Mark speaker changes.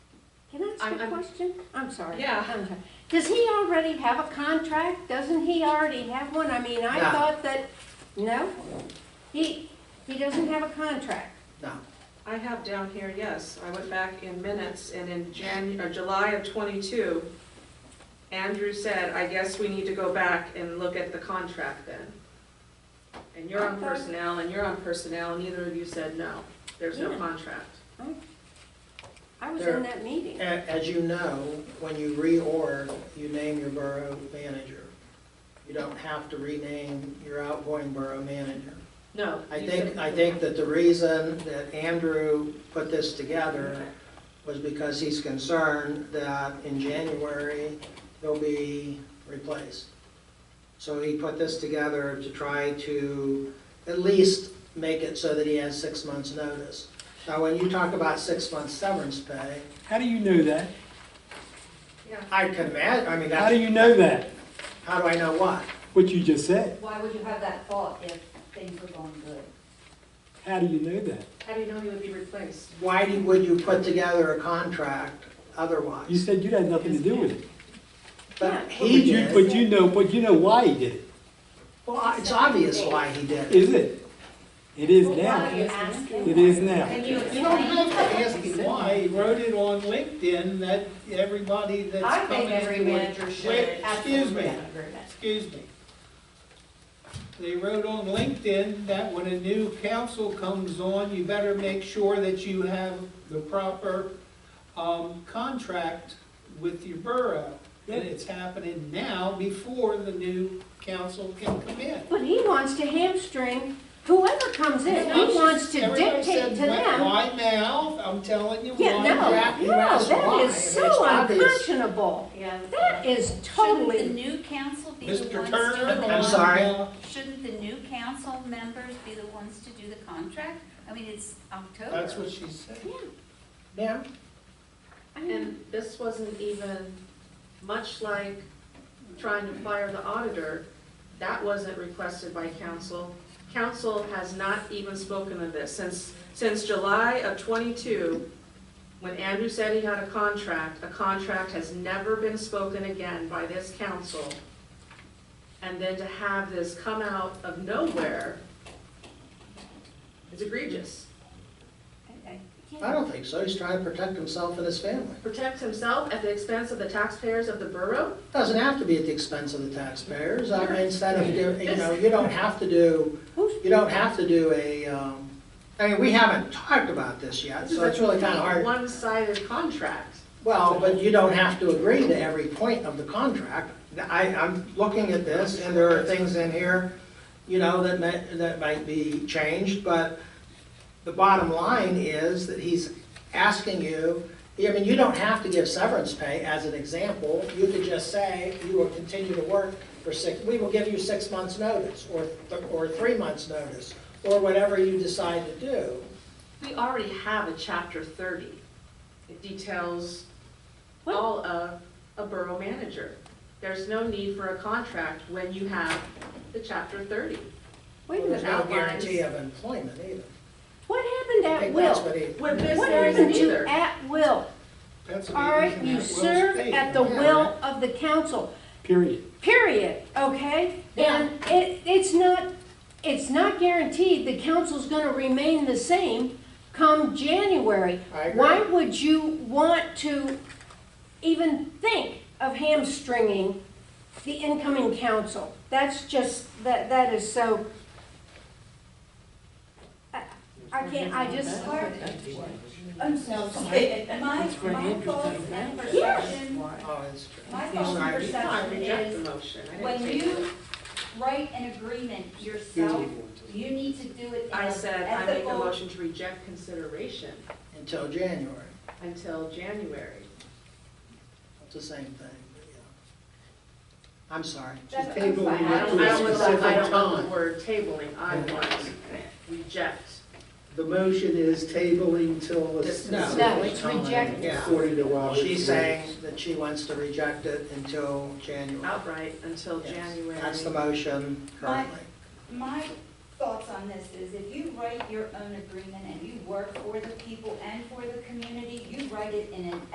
Speaker 1: I'm-
Speaker 2: ask a
Speaker 1: I'm-
Speaker 2: question? I'm sorry.
Speaker 1: Yeah.
Speaker 2: I'm sorry. Does he already have a contract? Doesn't he already have one? I mean, I
Speaker 3: No.
Speaker 2: thought that, no? He, he doesn't have a contract.
Speaker 3: No,
Speaker 1: I have down here, yes, I went back in minutes, and in Jan, or July of twenty-two, Andrew said, I guess we need to go back and look at the contract then. And you're on
Speaker 2: Okay.
Speaker 1: personnel, and you're on personnel, neither of you said no, there's no
Speaker 2: Yeah.
Speaker 1: contract.
Speaker 2: I was
Speaker 3: There-
Speaker 2: in that meeting.
Speaker 3: A- as you know, when you reorg, you name your borough manager. You don't have to rename your outgoing borough manager.
Speaker 1: No.
Speaker 3: I
Speaker 1: you
Speaker 3: think,
Speaker 1: said-
Speaker 3: I think that the reason that Andrew put this together was because he's concerned that in January, he'll be replaced. So he put this together to try to at least make it so that he has six months' notice. Now, when you talk about six months severance pay,
Speaker 4: How do you know that?
Speaker 1: Yeah.
Speaker 3: I can imagine, I mean,
Speaker 4: How do
Speaker 3: that's,
Speaker 4: you know that?
Speaker 3: how do I know what?
Speaker 4: What you just said.
Speaker 5: Why would you have that thought if things were going good?
Speaker 4: How do you know that?
Speaker 1: How do you know you would be replaced?
Speaker 3: Why do- would you put together a contract
Speaker 4: You
Speaker 3: otherwise?
Speaker 4: said you had nothing to do with it.
Speaker 3: But
Speaker 4: But
Speaker 3: he
Speaker 4: you,
Speaker 3: did.
Speaker 4: but you know, but you know why he did it.
Speaker 3: Well, it's obvious why he did it.
Speaker 4: Is it? It is
Speaker 5: Well, why are
Speaker 4: now.
Speaker 5: you asking?
Speaker 4: It is now.
Speaker 5: Can you
Speaker 6: You don't
Speaker 5: explain?
Speaker 6: have to ask him why, he wrote it on LinkedIn that everybody
Speaker 5: I
Speaker 6: that's coming
Speaker 5: think every
Speaker 6: into it.
Speaker 5: manager should
Speaker 6: Wait, excuse
Speaker 5: absolutely
Speaker 6: me.
Speaker 5: have agreement.
Speaker 6: Excuse me. They wrote on LinkedIn that when a new council comes on, you better make sure that you have the proper, um, contract with your borough. And it's happening now before the new council can come in.
Speaker 2: But he wants to hamstring whoever comes in. He wants to
Speaker 6: Everybody said,
Speaker 2: dictate to
Speaker 6: "Why-
Speaker 2: them.
Speaker 6: Why now? I'm telling you, why
Speaker 2: Yeah,
Speaker 6: now?
Speaker 2: no,
Speaker 3: you
Speaker 2: no,
Speaker 3: asked why,
Speaker 2: that
Speaker 3: and
Speaker 2: is
Speaker 3: it's
Speaker 2: so
Speaker 3: obvious.
Speaker 2: unconscionable.
Speaker 5: Yeah.
Speaker 2: That is
Speaker 7: Shouldn't
Speaker 2: totally,
Speaker 7: the new council be the
Speaker 6: Mr.
Speaker 7: ones
Speaker 6: Turner,
Speaker 7: to?
Speaker 3: I'm sorry.
Speaker 7: Shouldn't the new council members be the ones to do the contract? I mean, it's October.
Speaker 6: That's what she said.
Speaker 3: Yeah.
Speaker 2: I mean,
Speaker 1: And this wasn't even, much like trying to fire the auditor, that wasn't requested by council. Council has not even spoken of this. Since, since July of twenty-two, when Andrew said he had a contract, a contract has never been spoken again by this council. And then to have this come out of nowhere is egregious.
Speaker 7: I- I-
Speaker 3: I don't think so. He's trying to protect himself and his family.
Speaker 1: Protect himself at the expense of the taxpayers of the borough?
Speaker 3: Doesn't have to be at the expense of the taxpayers. I mean, instead of, do- you know, you don't have to do,
Speaker 2: who's,
Speaker 3: you don't have to do a, um, I mean, we haven't talked about this yet, so it's really kind of hard.
Speaker 1: One-sided contract.
Speaker 3: Well, but you don't have to agree to every point of the contract. I, I'm looking at this and there are things in here, you know, that may, that might be changed, but the bottom line is that he's asking you, I mean, you don't have to give severance pay as an example. You could just say, you will continue to work for six, we will give you six months' notice, or, th- or three months' notice, or whatever you decide to do.
Speaker 1: We already have a chapter thirty. It details
Speaker 2: What?
Speaker 1: all of a borough manager. There's no need for a contract when you have the chapter thirty.
Speaker 2: wait a
Speaker 3: There's
Speaker 2: minute,
Speaker 3: no guarantee of employment either.
Speaker 2: what happened
Speaker 3: I
Speaker 2: at
Speaker 3: think that's
Speaker 2: will?
Speaker 3: what he-
Speaker 1: With this,
Speaker 2: What
Speaker 1: there isn't
Speaker 2: happened to
Speaker 1: either.
Speaker 2: at will?
Speaker 6: That's what
Speaker 2: All
Speaker 6: it is
Speaker 2: right,
Speaker 6: in
Speaker 2: you
Speaker 6: that Will's
Speaker 2: serve
Speaker 6: state.
Speaker 2: at the
Speaker 3: yeah.
Speaker 2: will of the council,
Speaker 4: Period.
Speaker 2: period, okay? And it, it's not, it's not guaranteed the council's gonna remain the same come January.
Speaker 3: I agree.
Speaker 2: Why would you want to even think of hamstringing the incoming council? That's just, that, that is so. I- I can't, I just,
Speaker 5: I'm so sorry. My, my thoughts and perception,
Speaker 3: Oh, it's true.
Speaker 5: my thoughts and
Speaker 3: Sorry.
Speaker 1: I
Speaker 5: perception
Speaker 1: reject the
Speaker 5: is
Speaker 1: motion. I didn't
Speaker 5: when
Speaker 1: take it.
Speaker 5: you write an agreement yourself, you need to do it in
Speaker 1: I
Speaker 5: an
Speaker 1: said, I make a
Speaker 5: ethical.
Speaker 1: motion to reject consideration
Speaker 3: Until January.
Speaker 1: until January.
Speaker 3: It's the same thing, but yeah. I'm sorry.
Speaker 5: That's- I'm
Speaker 6: Table
Speaker 5: fine.
Speaker 6: we
Speaker 1: I
Speaker 6: went
Speaker 1: don't,
Speaker 6: to
Speaker 1: I
Speaker 6: a
Speaker 1: don't want, I
Speaker 6: specific
Speaker 1: don't want the
Speaker 6: time.
Speaker 1: word tabling, I want reject.
Speaker 6: The motion is tabling till a
Speaker 1: This is-
Speaker 3: No.
Speaker 2: no, it's rejected.
Speaker 3: Yeah.
Speaker 6: According to Robert's
Speaker 3: She's
Speaker 6: rules.
Speaker 3: saying that she wants to reject it until January.
Speaker 1: outright until
Speaker 3: Yes,
Speaker 1: January.
Speaker 3: That's the motion currently.
Speaker 5: My thoughts on this is if you write your own agreement and you work for the people and for the community, you write it in an